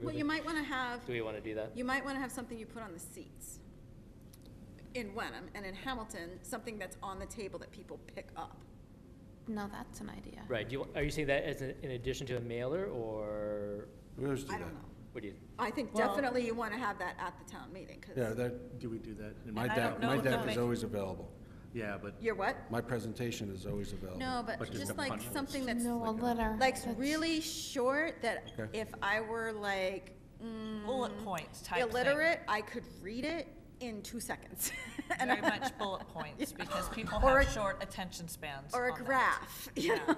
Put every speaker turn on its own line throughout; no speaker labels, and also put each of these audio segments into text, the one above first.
Well, you might want to have,
Do we want to do that?
you might want to have something you put on the seats in Wenham and in Hamilton, something that's on the table that people pick up.
No, that's an idea.
Right, do you, are you saying that as a- in addition to a mailer, or
We always do
I
that.
don't know.
what do you?
I think
Well-
definitely you want to have that at the town meeting
Yeah,
because
that, do we do that? And My
I
deck,
don't know
my
if
deck
they'll
is
make-
always available.
Yeah, but
you're what?
My presentation is always available.
No, but
But just
just
a
like
punch list.
something that's
No, a letter.
like
that's-
really short that
Okay.
if I were like mm,
Bullet points type thing.
illiterate, I could read it in two seconds. And
Very
I-
much bullet points, because people
Or
have
a-
short attention spans
Or a
on that.
graph, you
Yeah.
know?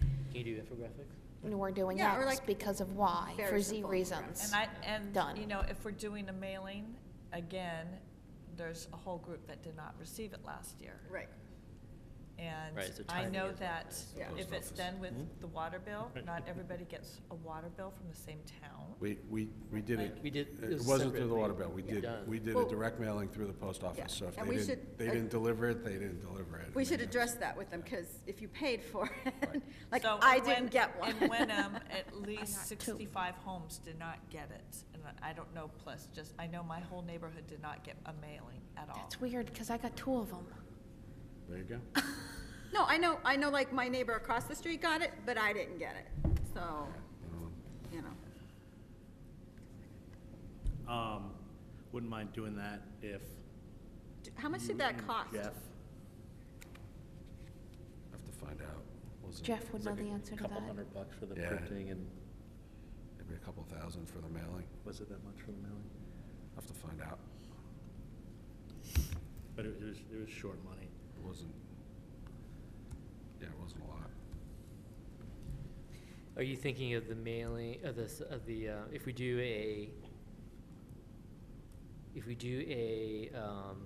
Can you do infographics?
We're doing
Yeah, or
X
like
because of Y,
very
for Z
simple
reasons.
And I, and,
Done.
you know, if we're doing a mailing, again, there's a whole group that did not receive it last year.
Right.
And
Right, so
I
timing
know
is what it
that
is.
Yeah.
if it's done with the water bill, not everybody gets a water bill from the same town.
We, we, we did it.
We did- it
It
was
wasn't through the
separately
water bill. We did,
done.
we did a
Well-
direct mailing through the post office. So if
and
they
we
didn't,
should-
they didn't deliver it, they didn't deliver it.
We
I
should
mean,
address
that's-
that with them because if you paid for it, like
So
I
in Wen-
didn't get one.
In Wenham, at least
got two.
sixty-five homes did not get it, and I don't know, plus, just, I know my whole neighborhood did not get a mailing at all.
That's weird, because I got two of them.
There you go.
No, I know, I know like my neighbor across the street got it, but I didn't get it, so, you know.
um, wouldn't mind doing that if.
D- How much
you
did that
and
cost?
Jeff,
Have to find out. Was it
Jeff would
it's
know
like a
the answer to
Couple
that.
hundred bucks for the
Yeah.
printing and
Maybe a couple thousand for the mailing.
was it that much for the mailing?
Have to find out.
But it was, it was short money.
It wasn't, yeah, it wasn't a lot.
Are you thinking of the mailing, of this, of the, uh, if we do a, if we do a, um,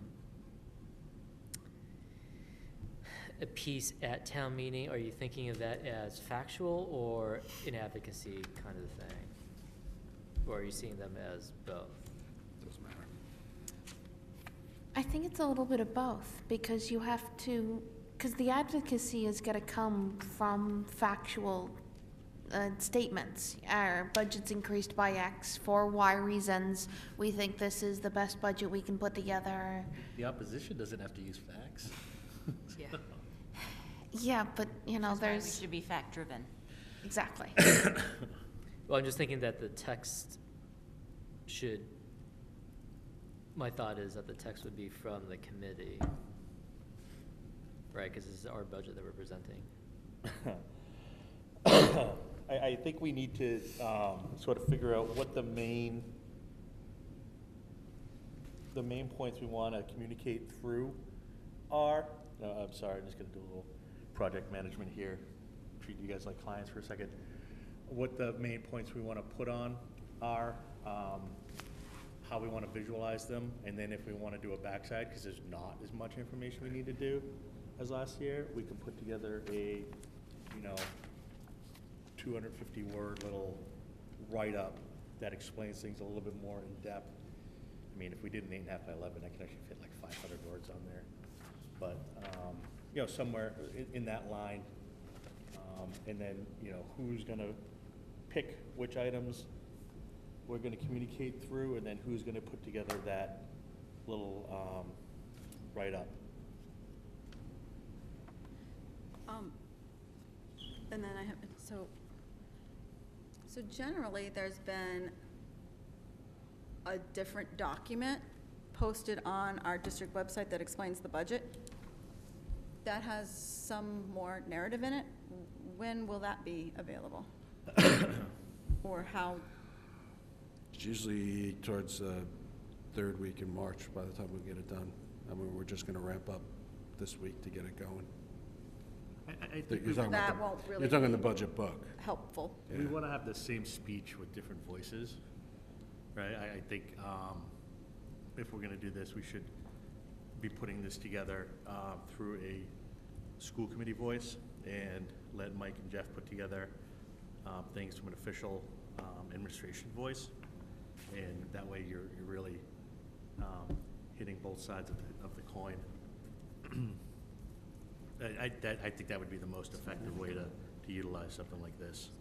a piece at town meeting, are you thinking of that as factual or an advocacy kind of thing? Or are you seeing them as both?
Doesn't matter.
I think it's a little bit of both, because you have to, because the advocacy is gonna come from factual uh, statements. Our budget's increased by X for Y reasons. We think this is the best budget we can put together.
The opposition doesn't have to use facts.
Yeah.
Yeah, but, you know,
That's why
there's.
We should be fact-driven.
Exactly.
Well, I'm just thinking that the text should, my thought is that the text would be from the committee. Right, because this is our budget that we're presenting.
I, I think we need to, um, sort of figure out what the main, the main points we wanna communicate through are, no, I'm sorry, I'm just gonna do a little project management here, treat you guys like clients for a second. What the main points we wanna put on are, um, how we wanna visualize them, and then if we wanna do a backside, cause there's not as much information we need to do as last year, we can put together a, you know, 250-word little write-up that explains things a little bit more in depth. I mean, if we did an eight and a half by 11, I could actually fit like 500 words on there. But, um, you know, somewhere in, in that line. Um, And then, you know, who's going to pick which items we're going to communicate through, and then who's going to put together that little um, write-up.
Um, And then I have, so, so generally, there's been a different document posted on our district website that explains the budget. That has some more narrative in it. When will that be available? Or how,
It's usually towards the third week in March by the time we get it done. I mean, we're just gonna ramp up this week to get it going.
I, I think
You're talking about
That
the-
won't really
You're talking the
be-
budget book.
helpful?
We want to have the same speech with different voices, right? I, I think um, if we're going to do this, we should be putting this together um, through a school committee voice and let Mike and Jeff put together um, things from an official um, administration voice. And that way you're, you're really um, hitting both sides of the, of the coin. I, I, that, I think that would be the most effective way to, to utilize something like this.